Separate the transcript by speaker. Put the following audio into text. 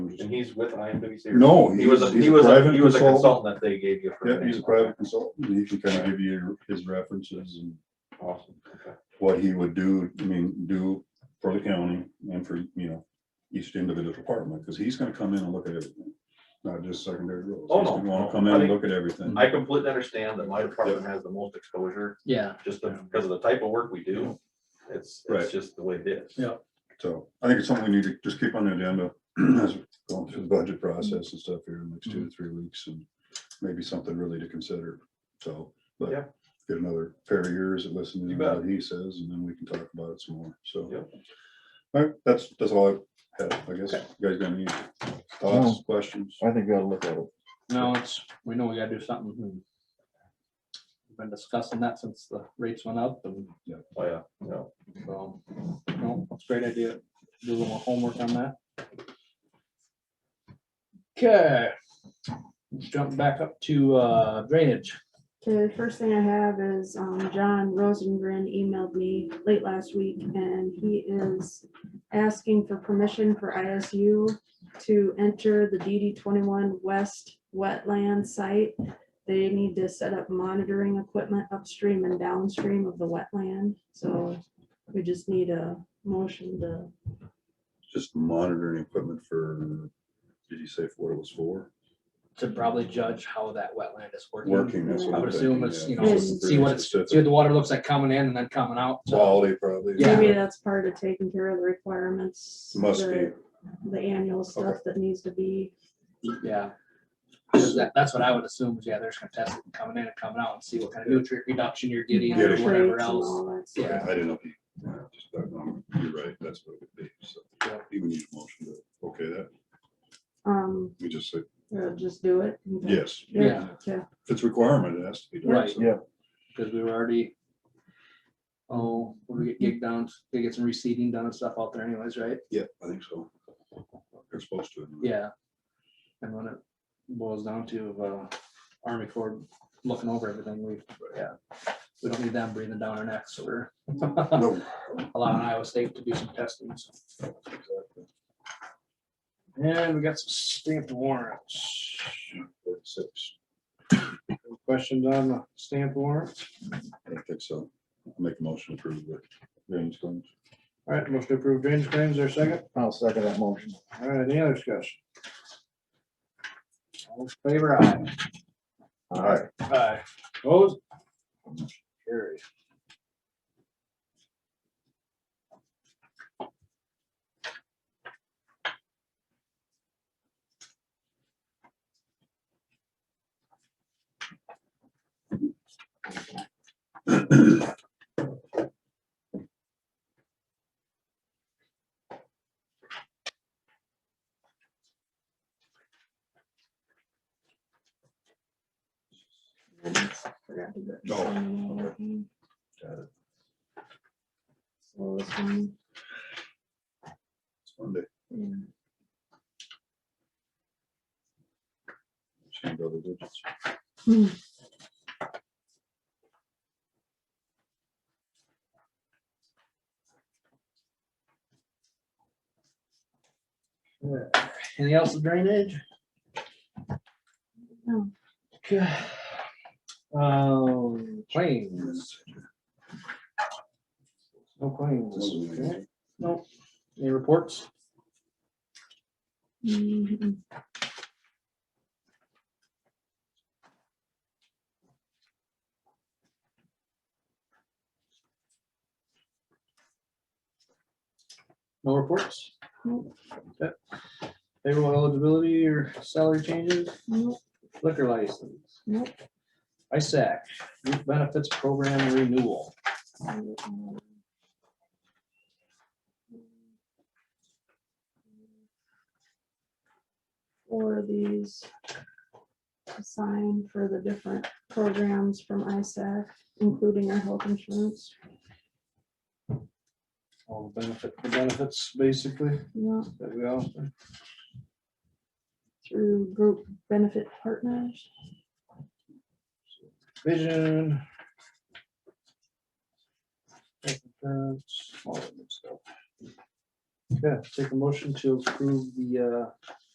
Speaker 1: and he's with IMWC. or-
Speaker 2: No,
Speaker 1: He was, a-
Speaker 2: he's
Speaker 1: he was, a-
Speaker 2: private
Speaker 1: he was a
Speaker 2: consultant.
Speaker 1: consultant that they gave you. for
Speaker 2: Yeah, he's a
Speaker 1: things.
Speaker 2: private consultant, and he can kind of give you his references and
Speaker 1: Awesome. Okay.
Speaker 2: what he would do, I mean, do for the county and for, you know, each individual department, because he's gonna come in and look at everything, not just secondary roads.
Speaker 1: Oh,
Speaker 2: He's
Speaker 1: no,
Speaker 2: gonna wanna
Speaker 1: no,
Speaker 2: come
Speaker 1: I
Speaker 2: in and
Speaker 1: think-
Speaker 2: look at everything.
Speaker 1: I completely understand that my department has the most exposure,
Speaker 3: Yeah,
Speaker 1: just because of the type of work we do. It's,
Speaker 2: Right.
Speaker 1: it's just the way it is.
Speaker 3: Yeah.
Speaker 2: So I think it's something we need to just keep on the agenda as we're going through the budget process and stuff here in the next
Speaker 3: Mm-hmm.
Speaker 2: two to three weeks and maybe something really to consider. So, but
Speaker 1: Yeah.
Speaker 2: get another pair of ears and listen to
Speaker 1: You
Speaker 2: what he says and then we can talk about it some more. So.
Speaker 1: Yep.
Speaker 2: All right, that's, that's all I have, I guess. You guys got any thoughts, questions?
Speaker 4: I think we ought to look at it.
Speaker 3: no, it's, we know we gotta do something. and We've Been discussing that since the rates went up and
Speaker 1: Oh, yeah, no.
Speaker 3: so, no, it's a great idea. Do a little homework on that. Okay. Let's Jump back up to uh, drainage.
Speaker 5: The first thing I have is, um, John Rosengren emailed me late last week and he is asking for permission for ISU to enter the DD twenty-one west wetland site. They need to set up monitoring equipment upstream and downstream of the wetland, so we just need a motion to,
Speaker 2: Just monitoring equipment for, did you say for what it was for?
Speaker 3: To probably judge how that wetland is working.
Speaker 2: Working. that's what
Speaker 3: I
Speaker 2: I'm
Speaker 3: would assume
Speaker 2: thinking,
Speaker 3: it's,
Speaker 2: yeah.
Speaker 3: you
Speaker 5: know,
Speaker 2: Just wasn't
Speaker 3: see what
Speaker 2: very
Speaker 3: it's- See
Speaker 2: specific.
Speaker 3: what the water looks like coming in and then coming out. so-
Speaker 2: Quality probably.
Speaker 3: Yeah.
Speaker 5: maybe that's part of taking care of the requirements.
Speaker 2: Must be.
Speaker 5: the- The annual stuff that needs to be
Speaker 3: Yeah. 'Cause that- that's what I would assume, is yeah, they're just gonna test it coming in and coming out and see what kind of nutrient reduction you're getting or
Speaker 2: Getting.
Speaker 3: whatever
Speaker 5: Traits and
Speaker 3: else.
Speaker 5: all that stuff.
Speaker 2: Okay,
Speaker 3: Yeah.
Speaker 2: I didn't know. if you- yeah, just that number. You're right, that's what it would be, so.
Speaker 3: Yeah.
Speaker 2: Even need a motion to, okay, that,
Speaker 5: Um,
Speaker 2: we just say,
Speaker 5: or just do it.
Speaker 2: yes,
Speaker 5: Yeah, yeah.
Speaker 2: if it's a requirement, it has to be done.
Speaker 3: Right.
Speaker 2: so.
Speaker 4: Yeah.
Speaker 3: Because we were already. Oh, we get gig down, they get some reseeding done and stuff out there anyways, right?
Speaker 2: Yeah, I think so. They're supposed to. anyway.
Speaker 3: Yeah. And when it boils down to uh, Army Corps looking over everything, we, yeah. We don't need them breathing down our necks or
Speaker 2: No,
Speaker 3: allowing Iowa State to do some testing. so. And we got some stamped warrants.
Speaker 2: four to six.
Speaker 3: Questions on the stamp warrant?
Speaker 2: I don't think so. I'll Make a motion to approve the drainage claims.
Speaker 3: All right, motion to approve drainage claims, there a second?
Speaker 4: I'll second that motion.
Speaker 3: All right, any other discussion? All in favor aye.
Speaker 4: All right.
Speaker 3: Aye. Opposed? Carry.
Speaker 5: Forgot to do it.
Speaker 2: No, okay. Got
Speaker 5: So this one,
Speaker 2: It's Monday.
Speaker 5: yeah.
Speaker 2: Same double digits.
Speaker 5: Hmm.
Speaker 3: Anything else with drainage?
Speaker 5: No.
Speaker 3: Okay. Um, claims. No claims. okay. Nope. Any reports?
Speaker 5: Mhm.
Speaker 3: No reports?
Speaker 5: Nope.
Speaker 3: Okay. Payroll eligibility or salary changes,
Speaker 5: Nope,
Speaker 3: liquor license,
Speaker 5: nope.
Speaker 3: ISAC, youth benefits program renewal.
Speaker 5: Um, Four of these assigned for the different programs from ISAC, including our health insurance.
Speaker 3: All the benefit, the benefits basically
Speaker 5: Yeah,
Speaker 3: that we offer.
Speaker 5: through group benefit partners.
Speaker 3: Vision. health insurance, all that good stuff. Okay, take a motion to approve the uh